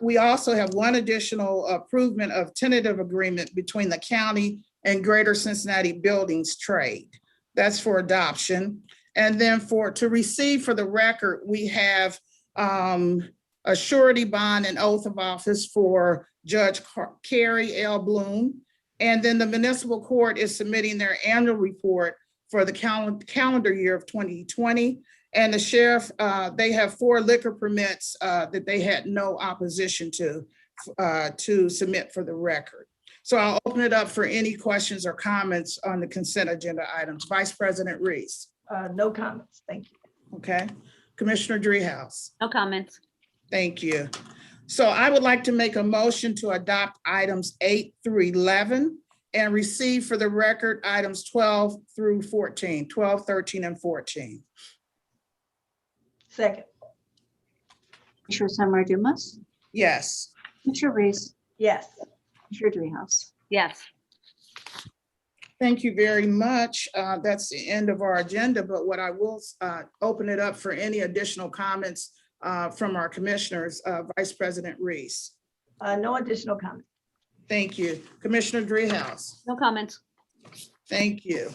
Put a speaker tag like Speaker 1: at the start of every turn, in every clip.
Speaker 1: we also have one additional improvement of tentative agreement between the county and Greater Cincinnati Buildings Trade. That's for adoption. And then for, to receive for the record, we have um, a surety bond and oath of office for Judge Car- Carrie L. Bloom. And then the municipal court is submitting their annual report for the cal- calendar year of 2020. And the sheriff, uh, they have four liquor permits uh, that they had no opposition to, uh, to submit for the record. So I'll open it up for any questions or comments on the consent agenda items. Vice President Reese,
Speaker 2: Uh, No comments, thank you.
Speaker 1: okay? Commissioner Dreehouse?
Speaker 3: No comments.
Speaker 1: Thank you. So I would like to make a motion to adopt items eight through 11 and receive for the record items 12 through 14, 12, 13, and 14.
Speaker 2: Second,
Speaker 3: Commissioner Summer Dumas,
Speaker 1: Yes,
Speaker 3: Commissioner Reese,
Speaker 2: yes,
Speaker 3: Commissioner Dreehouse. Yes.
Speaker 1: thank you very much. Uh, That's the end of our agenda, but what I will uh, open it up for any additional comments uh, from our commissioners, Uh, Vice President Reese.
Speaker 2: Uh, no additional comments.
Speaker 1: Thank you. Commissioner Dreehouse.
Speaker 3: No comments.
Speaker 1: Thank you.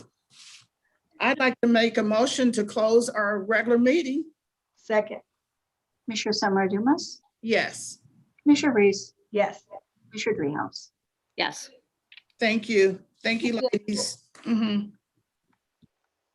Speaker 1: I'd like to make a motion to close our regular meeting.
Speaker 2: Second,
Speaker 3: Commissioner Summer Dumas,
Speaker 1: Yes,
Speaker 3: Commissioner Reese,
Speaker 2: yes,
Speaker 3: Commissioner Dreehouse. Yes.
Speaker 1: thank you. Thank you, ladies. Mhm.